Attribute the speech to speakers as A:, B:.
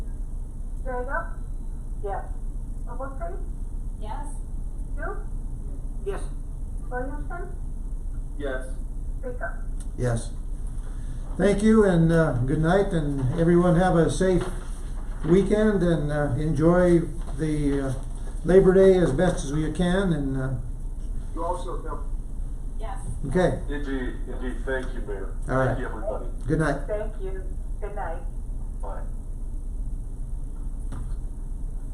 A: Vega,
B: Yes.
A: Ogletree,
C: Yes.
A: Duke,
B: Yes.
A: Williamson,
D: Yes.
A: Baker.
E: Yes. Thank you and uh, good night, and everyone have a safe weekend and uh, enjoy the uh, Labor Day as best as you can. And uh,
D: You also help.
C: Yes.
E: okay,
D: Indeed, indeed, thank you, Mayor.
E: All right.
D: Thank you, everybody.
E: good night.
A: Thank you. Good night.
D: Bye.